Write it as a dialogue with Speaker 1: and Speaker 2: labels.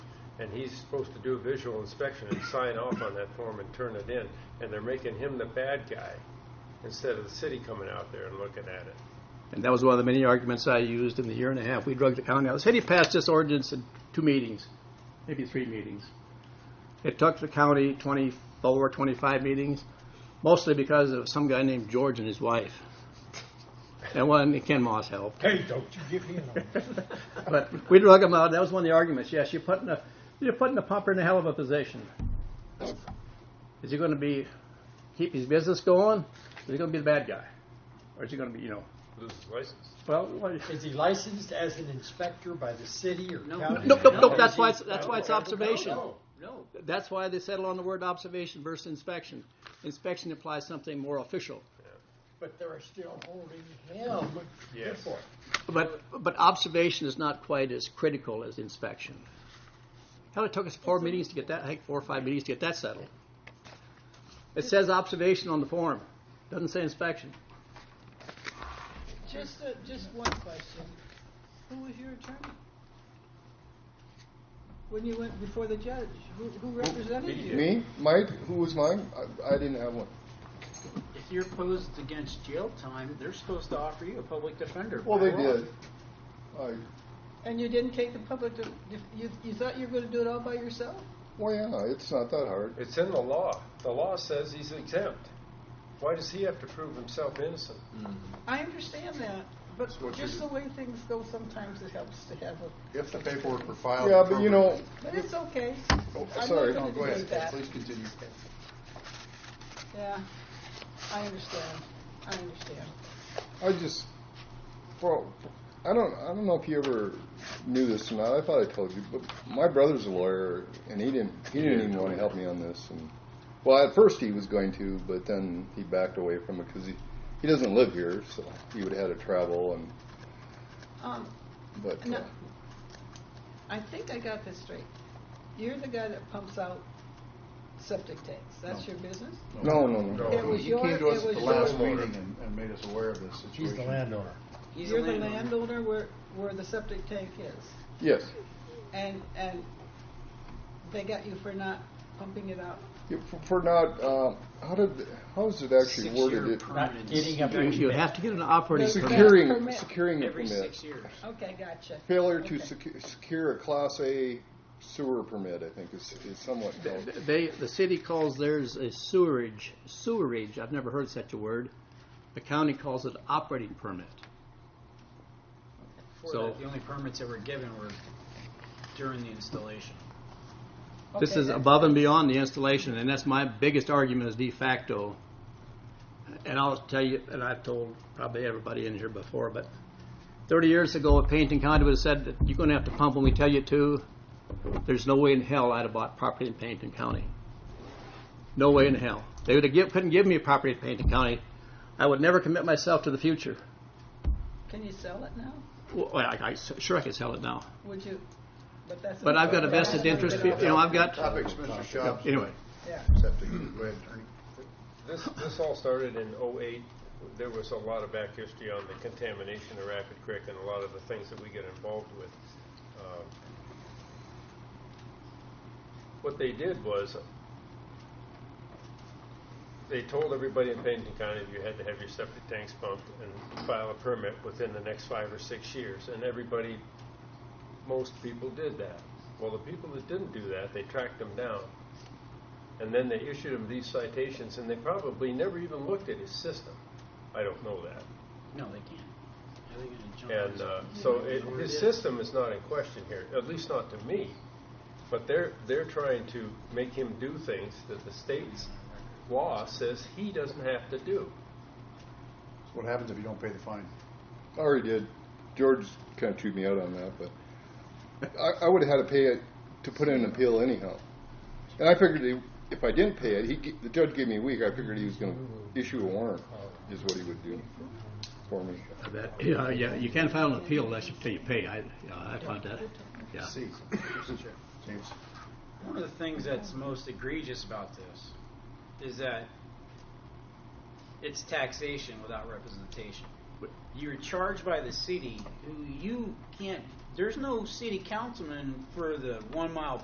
Speaker 1: and he's supposed to do a visual inspection and sign off on that form and turn it in, and they're making him the bad guy instead of the city coming out there and looking at it.
Speaker 2: And that was one of the many arguments I used in the year and a half. We drug the county out. The city passed this ordinance in two meetings, maybe three meetings. It took the county 24, 25 meetings, mostly because of some guy named George and his wife. And one, Ken Moss helped.
Speaker 3: Hey, don't you give him a...
Speaker 2: But we drug him out. That was one of the arguments. Yes, you're putting a you're putting a pumper in a hell of a position. Is he going to be keep his business going? Is he going to be the bad guy, or is he going to be you know?
Speaker 1: Lose his license.
Speaker 2: Well, what,
Speaker 3: Is he licensed as an inspector by the city or county?
Speaker 2: no, no, no. That's why it's, that's why it's observation.
Speaker 3: No,
Speaker 2: No. That's why they settle on the word observation versus inspection. Inspection implies something more official.
Speaker 3: But they're still holding him.
Speaker 1: Yes.
Speaker 3: for it.
Speaker 2: But, but observation is not quite as critical as inspection. Hell, it took us four meetings to get that, I think four or five meetings to get that settled. It says observation on the form, doesn't say inspection.
Speaker 4: Just, uh, just one question. Who was your attorney? When you went before the judge, who, who
Speaker 3: Oh,
Speaker 4: represented you?
Speaker 5: Me, Mike, who was mine? I, I didn't have one.
Speaker 6: If you're posed against jail time, they're supposed to offer you a public defender.
Speaker 5: Well,
Speaker 6: by
Speaker 5: they
Speaker 6: law.
Speaker 5: did. I,
Speaker 4: And you didn't take the public, to, you, you thought you were going to do it all by yourself?
Speaker 5: well, yeah, it's not that hard.
Speaker 1: It's in the law. The law says he's exempt. Why does he have to prove himself innocent?
Speaker 4: I understand that, but
Speaker 7: what you
Speaker 4: just
Speaker 7: do.
Speaker 4: the way things go sometimes, it helps to have a,
Speaker 7: If the paperwork were filed.
Speaker 5: Yeah, but you know,
Speaker 4: but it's okay.
Speaker 5: Oh,
Speaker 4: I'm
Speaker 5: sorry.
Speaker 4: not
Speaker 7: No,
Speaker 4: going to
Speaker 7: go ahead,
Speaker 4: debate that.
Speaker 7: please continue.
Speaker 4: Yeah, I understand, I understand.
Speaker 5: I just, well, I don't, I don't know if you ever knew this or not. I thought I told you, but my brother's a lawyer, and he didn't, he didn't even want to help me on this. And well, at first he was going to, but then he backed away from it because he, he doesn't live here, so he would have had to travel and.
Speaker 4: Um,
Speaker 5: But
Speaker 4: No.
Speaker 5: uh,
Speaker 4: I think I got this straight. You're the guy that pumps out septic tanks, that's your business?
Speaker 5: no, no,
Speaker 1: No.
Speaker 5: no.
Speaker 4: It was
Speaker 7: He
Speaker 4: your,
Speaker 7: came to us
Speaker 4: it
Speaker 7: at the
Speaker 4: was
Speaker 7: last
Speaker 4: your,
Speaker 7: meeting and, and made us aware of this situation.
Speaker 3: He's the landowner.
Speaker 6: He's
Speaker 4: you're
Speaker 6: a
Speaker 4: the
Speaker 6: landowner.
Speaker 4: landowner where, where the septic tank is.
Speaker 5: Yes,
Speaker 4: And, and they got you for not pumping it out.
Speaker 5: Yeah, for, for not. Uh, how did? How is it actually worded?
Speaker 6: Six-year
Speaker 5: It,
Speaker 3: Not
Speaker 6: permanents
Speaker 3: getting up.
Speaker 2: You- You have to get an operating
Speaker 4: There's
Speaker 2: permit.
Speaker 5: securing
Speaker 4: Permit.
Speaker 5: securing a
Speaker 6: every
Speaker 5: permit.
Speaker 6: six years.
Speaker 4: Okay, gotcha.
Speaker 5: Failure to
Speaker 4: Okay.
Speaker 5: secu- secure a Class A sewer permit, I think, is, is somewhat held.
Speaker 2: They, the city calls theirs a sewerage, sewerage, I've never heard such a word. The county calls it operating permit.
Speaker 6: Before
Speaker 2: So-
Speaker 6: that, the only permits that were given were during the installation.
Speaker 2: This
Speaker 4: Okay,
Speaker 2: is
Speaker 4: that's-
Speaker 2: above and beyond the installation, and that's my biggest argument is de facto. And I'll tell you, and I've told probably everybody in here before, but thirty years ago, if Pennington County would have said that you're gonna have to pump when we tell you to, there's no way in hell I'd have bought property in Pennington County. No way in hell. They would have give, couldn't give me a property in Pennington County. I would never commit myself to the future.
Speaker 4: Can you sell it now?
Speaker 2: Well, I, I, sure I could sell it now,
Speaker 4: Would you? But that's.
Speaker 2: but I've got a vested interest, you know, I've got,
Speaker 7: Topics, Mr. Schaub,
Speaker 2: anyway.
Speaker 4: Yeah.
Speaker 7: septic, go ahead, attorney.
Speaker 1: This, this all started in '08. There was a lot of back history on the contamination of Rapid Creek and a lot of the things that we get involved with. Um, What they did was, they told everybody in Pennington County that you had to have your septic tanks pumped and file a permit within the next five or six years, and everybody, most people did that. Well, the people that didn't do that, they tracked them down. And then they issued him these citations, and they probably never even looked at his system. I don't know that.
Speaker 6: No, they can't. How are they gonna jump
Speaker 1: And
Speaker 6: us?
Speaker 1: uh, so it,
Speaker 6: Where
Speaker 1: his
Speaker 6: is-
Speaker 1: system is not in question here, at least not to me. But they're, they're trying to make him do things that the state's law says he doesn't have to do.
Speaker 7: What happens if you don't pay the fine?
Speaker 5: I already did. George kind of chewed me out on that, but I, I would have had to pay it to put in an appeal anyhow. And I figured he- if I didn't pay it, he g- the judge gave me a week. I figured he was going to issue a warrant, is what he would do for me.
Speaker 2: That, yeah, yeah, you can't file an appeal unless you, till you pay, I, yeah, I found that, yeah.
Speaker 7: See, James,
Speaker 6: One of the things that's most egregious about this is that it's taxation without representation. You're charged by the city. who You can't. There's no city councilman for the one mile